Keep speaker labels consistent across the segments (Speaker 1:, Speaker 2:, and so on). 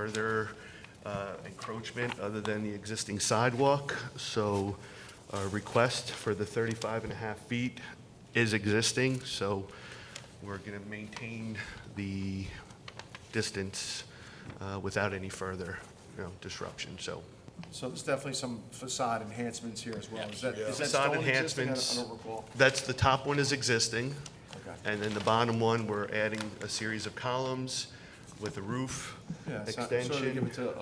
Speaker 1: further uh, encroachment other than the existing sidewalk. So our request for the 35 and a half feet is existing, so we're going to maintain the distance uh, without any further, you know, disruption, so.
Speaker 2: So there's definitely some facade enhancements here as well. Is that, is that
Speaker 1: Facade
Speaker 2: stone existing? I
Speaker 1: enhancements.
Speaker 2: don't- I don't recall.
Speaker 1: That's, the top one is existing.
Speaker 2: Okay.
Speaker 1: And then the bottom one, we're adding a series of columns with a roof
Speaker 2: Yeah, it's not-
Speaker 1: extension.
Speaker 2: Sort of give it to,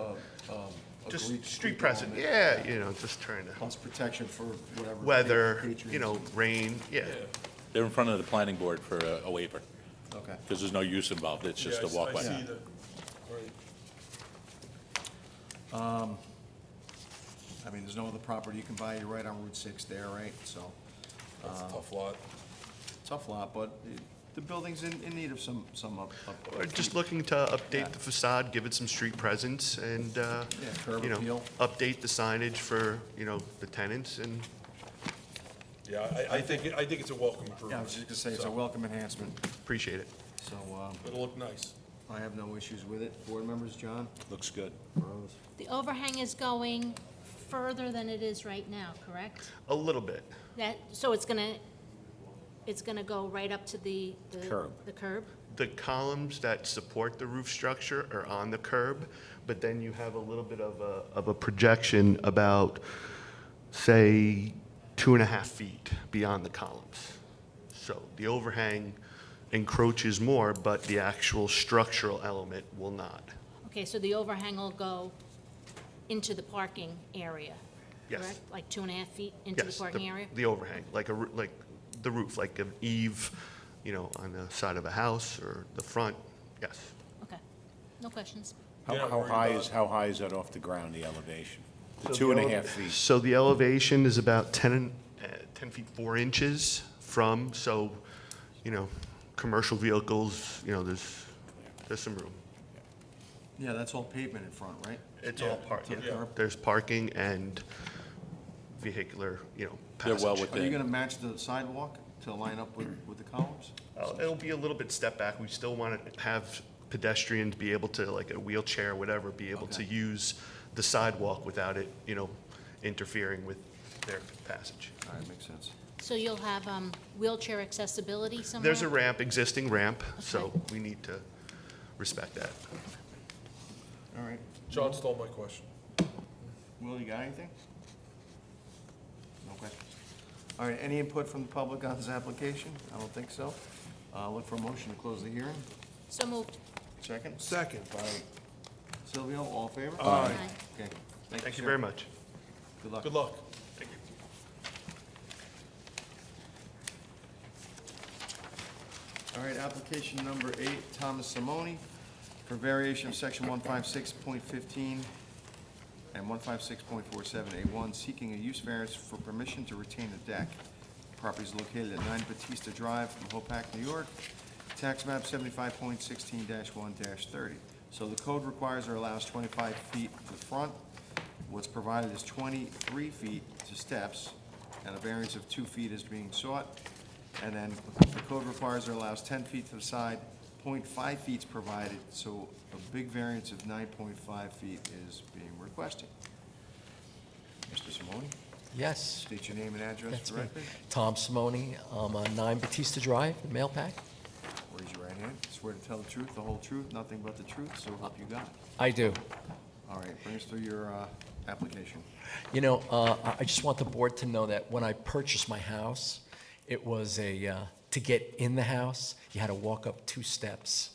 Speaker 2: uh, um, a
Speaker 1: Just
Speaker 2: Greek-
Speaker 1: street
Speaker 2: Greek
Speaker 1: present,
Speaker 2: element,
Speaker 1: yeah, you know, just trying to,
Speaker 2: Plus protection for whatever.
Speaker 1: weather,
Speaker 2: patron-
Speaker 1: you know, rain, yeah.
Speaker 3: They're in front of the planning board for a a waiver,
Speaker 2: Okay.
Speaker 3: because there's no use involved, it's just a
Speaker 4: Yeah, I s- I
Speaker 3: walkway.
Speaker 4: see that. Right.
Speaker 2: I mean, there's no other property you can buy. You're right on Route 6 there, right? So
Speaker 4: That's
Speaker 3: Uh-huh.
Speaker 4: a tough lot.
Speaker 2: tough lot, but it- the building's in, in need of some, some up. up-
Speaker 1: Or just looking to update the facade, give it some street presence and, uh,
Speaker 2: Yeah, curb
Speaker 1: you know,
Speaker 2: appeal.
Speaker 1: update the signage for, you know, the tenants and,
Speaker 4: Yeah, I, I think, it- I think it's a welcome
Speaker 2: Yeah, I
Speaker 4: improvement.
Speaker 2: was just gonna say, it's
Speaker 4: So,
Speaker 2: a welcome enhancement,
Speaker 1: appreciate it.
Speaker 2: so um,
Speaker 4: It'll look nice.
Speaker 2: I have no issues with it. Board members, John?
Speaker 3: Looks good.
Speaker 2: Rose.
Speaker 5: The overhang is going further than it is right now, correct?
Speaker 1: A little bit,
Speaker 5: That, so it's gonna, it's gonna go right up to the, the
Speaker 3: Curb.
Speaker 5: The curb?
Speaker 1: the columns that support the roof structure are on the curb, but then you have a little bit of a, of a projection about, say, two and a half feet beyond the columns. So the overhang encroaches more, but the actual structural element will not.
Speaker 5: Okay, so the overhang will go into the parking area,
Speaker 1: Yes.
Speaker 5: correct? Like two and a half feet into the
Speaker 1: Yes,
Speaker 5: parking area?
Speaker 1: The overhang, like a, roo- like the roof, like an eave, you know, on the side of a house or the front, yes.
Speaker 5: Okay, no questions.
Speaker 4: They're
Speaker 6: How,
Speaker 4: not
Speaker 6: how
Speaker 4: worried
Speaker 6: high
Speaker 4: about
Speaker 6: is, how high is that off the ground, the elevation?
Speaker 1: So
Speaker 6: Two
Speaker 1: the
Speaker 6: and a
Speaker 1: ele-
Speaker 6: half feet.
Speaker 1: So the elevation is about 10, and- uh, 10 feet 4 inches from, so, you know, commercial vehicles, you know, there's, there's some room.
Speaker 2: Yeah, that's all pavement in front, right?
Speaker 1: It's all parking.
Speaker 2: the curb.
Speaker 1: There's parking and vehicular, you know,
Speaker 3: They're
Speaker 1: passage.
Speaker 3: well
Speaker 2: Are you
Speaker 3: within,
Speaker 2: gonna match the sidewalk to line up with, with the columns?
Speaker 1: Uh, It'll be a little bit step back. We still want to have pedestrians be able to, like a wheelchair, whatever, be able to
Speaker 2: Okay.
Speaker 1: use the sidewalk without it, you know, interfering with their passage.
Speaker 2: All right, makes sense.
Speaker 5: So you'll have um, wheelchair accessibility somewhere?
Speaker 1: There's a ramp, existing ramp, so
Speaker 5: Okay.
Speaker 1: we need to respect that.
Speaker 2: All right.
Speaker 4: John stole my question.
Speaker 2: Will, you got anything? No questions? All right, any input from the public on this application? I don't think so. Uh, look for a motion to close the hearing.
Speaker 5: So moved.
Speaker 2: Second?
Speaker 4: Second.
Speaker 2: By Silvio, all in favor?
Speaker 5: Aye.
Speaker 2: Okay.
Speaker 1: Thank you
Speaker 2: sir.
Speaker 1: very much.
Speaker 2: Good luck.
Speaker 4: Good luck.
Speaker 2: All right, application number eight, Thomas Simone, for variation of section one five six point fifteen and one five six point four seven A one, seeking a use variance for permission to retain a deck. Property is located at nine Batista Drive, Hopac, New York, tax map seventy-five point sixteen one thirty. So the code requires or allows twenty-five feet to the front. What's provided is twenty-three feet to steps, and a variance of two feet is being sought. And then the code requires or allows ten feet to the side, 0.5 feet's provided, so a big variance of nine point five feet is being requested. Mr. Simone,
Speaker 7: Yes,
Speaker 2: state your name and address
Speaker 7: that's
Speaker 2: for
Speaker 7: me.
Speaker 2: the record.
Speaker 7: Tom Simone, I'm on 9 Batista Drive, the mail pack.
Speaker 2: Raise your right hand. Swear to tell the truth, the whole truth, nothing but the truth, so help you God.
Speaker 7: I do.
Speaker 2: All right, bring us through your uh, application.
Speaker 7: You know, uh, I- I just want the board to know that when I purchased my house, it was a, uh, to get in the house, you had to walk up two steps.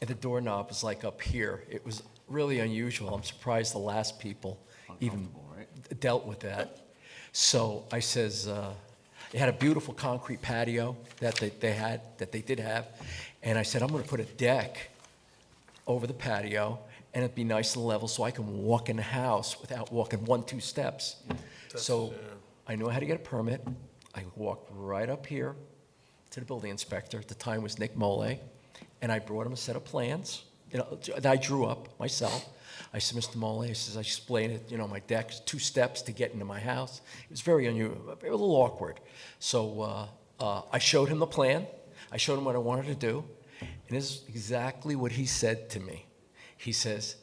Speaker 7: And the doorknob was like up here. It was really unusual. I'm surprised the last people even
Speaker 2: Uncomfortable, right?
Speaker 7: dealt with that. So I says, uh, it had a beautiful concrete patio that they, they had, that they did have. And I said, I'm gonna put a deck over the patio, and it'd be nice and level, so I can walk in the house without walking one, two steps. So I know how to get a permit. I walked right up here to the building inspector, at the time was Nick Mole, and I brought him a set of plans, you know, that I drew up myself. I said, Mr. Mole, I says, I explained it, you know, my deck, two steps to get into my house. It was very unusual, a little awkward. So uh, uh, I showed him the plan, I showed him what I wanted to do, and this is exactly what he said to me. He says,